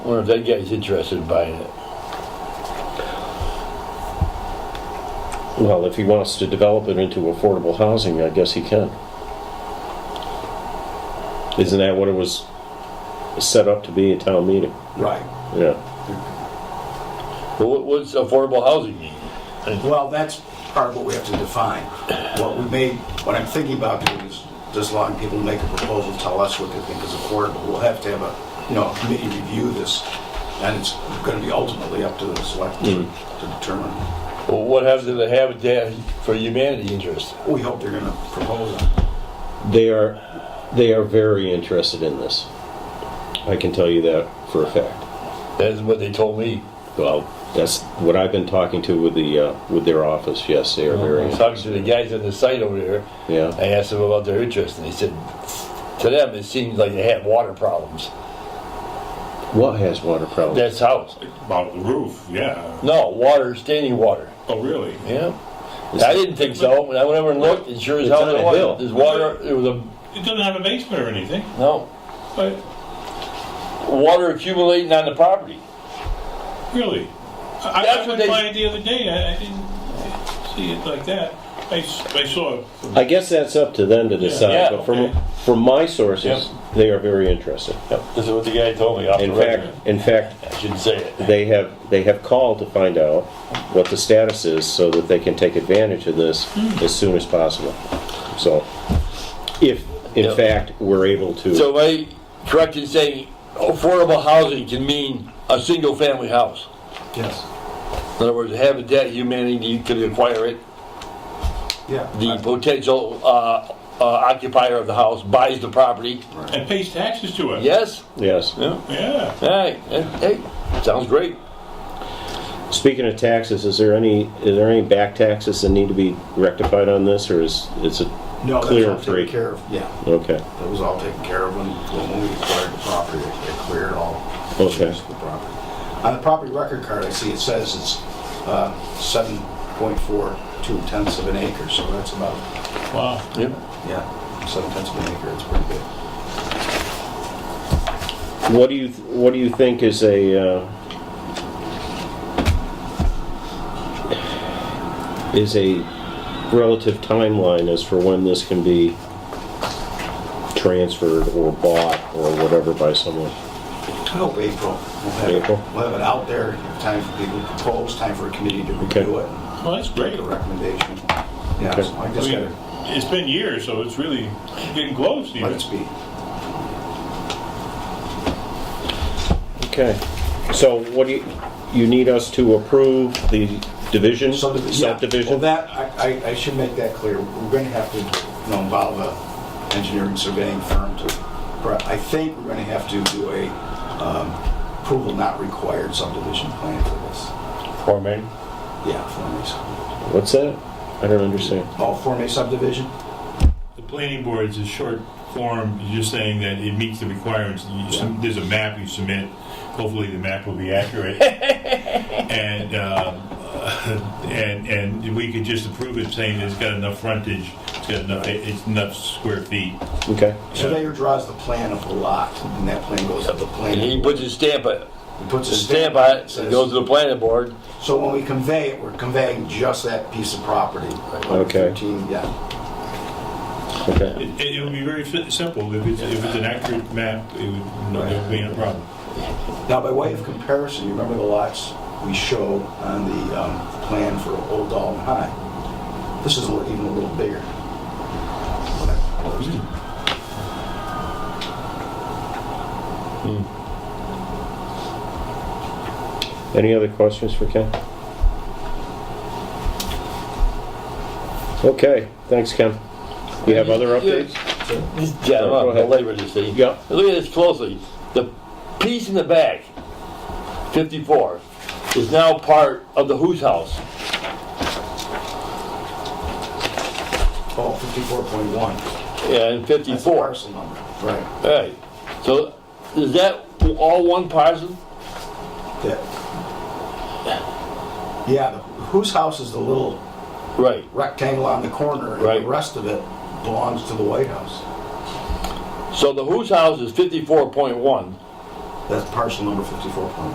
wonder if that guy's interested in buying it. Well, if he wants to develop it into affordable housing, I guess he can. Isn't that what it was set up to be at town meeting? Right. Yeah. But what, what's affordable housing mean? Well, that's part of what we have to define. What we may, what I'm thinking about doing is just allowing people to make a proposal, tell us what they think is affordable. We'll have to have a, you know, committee review this, and it's going to be ultimately up to the select to to determine. Well, what happens to the Habitat for Humanity interest? We hope they're going to propose it. They are, they are very interested in this. I can tell you that for a fact. That is what they told me. Well, that's what I've been talking to with the, uh, with their office, yes, they are I very, was talking to the guys on the site over there. yeah. I asked them about their interest, and they said, to them, it seems like they have water problems. What has water problems? That's house. About the roof, yeah. No, water, standing water. Oh, really? Yeah. I didn't think so. When I went over and looked, it sure as It's hell on a there was. hill. There's water, there was a, It doesn't have a basement or anything, no, but water accumulating on the property. really. I, That's I what went they- by it the other day, I, I didn't see it like that. I, s- I saw it. I guess that's up to them to decide, Yeah, but from, okay. from my sources, they are very interested. This is what the guy told me off In the record. fact, in fact, I shouldn't say it. they have, they have called to find out what the status is so that they can take advantage of this Hmm. as soon as possible. So, if, in Yep. fact, we're able to, So am I correct in saying affordable housing can mean a single-family house? Yes. In other words, Habitat Humanity could acquire it, the Yeah. potential uh, uh, occupier of the house buys the property. And pays taxes to it. Yes? yes. Yeah. All right, hey, sounds great. Speaking of taxes, is there any, is there any back taxes that need to be rectified on this, or is, is it No, that's clear all and free? taken care of. Yeah, Okay, that was all taken care of when, when we acquired the property. It cleared all. Okay. issues with the property. On the property record card, I see it says it's uh, 7.42 tenths of an acre, so that's about, Wow. Yep. yeah, 7 tenths of an acre, it's pretty big. what do you, what do you think is a, uh, is a relative timeline as for when this can be transferred or bought or whatever by someone? I Oh. hope April. We'll have- April? We'll have it out there, time for people to propose, time for a committee to Okay. review it, Well, that's make great. a recommendation. Yeah, Okay. so I I just mean, gotta it's been years, so it's really getting close let even. it be. Okay, so what do you, you need us to approve the division, Subdivision. yeah. Well, subdivision? that, I, I- I should make that clear. We're going to have to, you know, involve a engineering surveying firm to, but I think we're going to have to do a um, approval not required subdivision plan for this. Form A? Yeah, Form A subdivision. What's that? I don't understand. Oh, Form A subdivision? The planning board's a short form, you're saying that it meets the requirements, You sub- there's a map you submit, hopefully the map will be accurate. And, um, and, and we could just approve it saying it's got enough frontage, it's got enough, it's enough square feet. Okay, Surveyor draws the plan of the lot, and that plan goes to the And planning. he puts his stamp on it, He puts his stamp on it, says- it goes to the planning board. So when we convey it, we're conveying just that piece of property. Okay. 13, yeah. okay. It, it would be very fi- simple, if it's, if it's an accurate map, it would, no, there would be no problem. Now, by way of comparison, you remember the lots we showed on the um, plan for Old Dalton High? This is a little- even a little bigger. What I proposed. Any other questions for Ken? Okay, thanks, Ken. You have other updates? Yeah, I'm Go not ahead. belabor this thing. Yeah. Look at this closely. The piece in the back, 54, is now part of the whose house? Oh, 54.1. Yeah, in That's the 54. parcel number. Right. Right. So is that all one parcel? That- Yeah, the- whose house is the little Right. rectangle on the corner? And Right. the rest of it belongs to the White House. So the whose house is 54.1 That's parcel number fifty-four point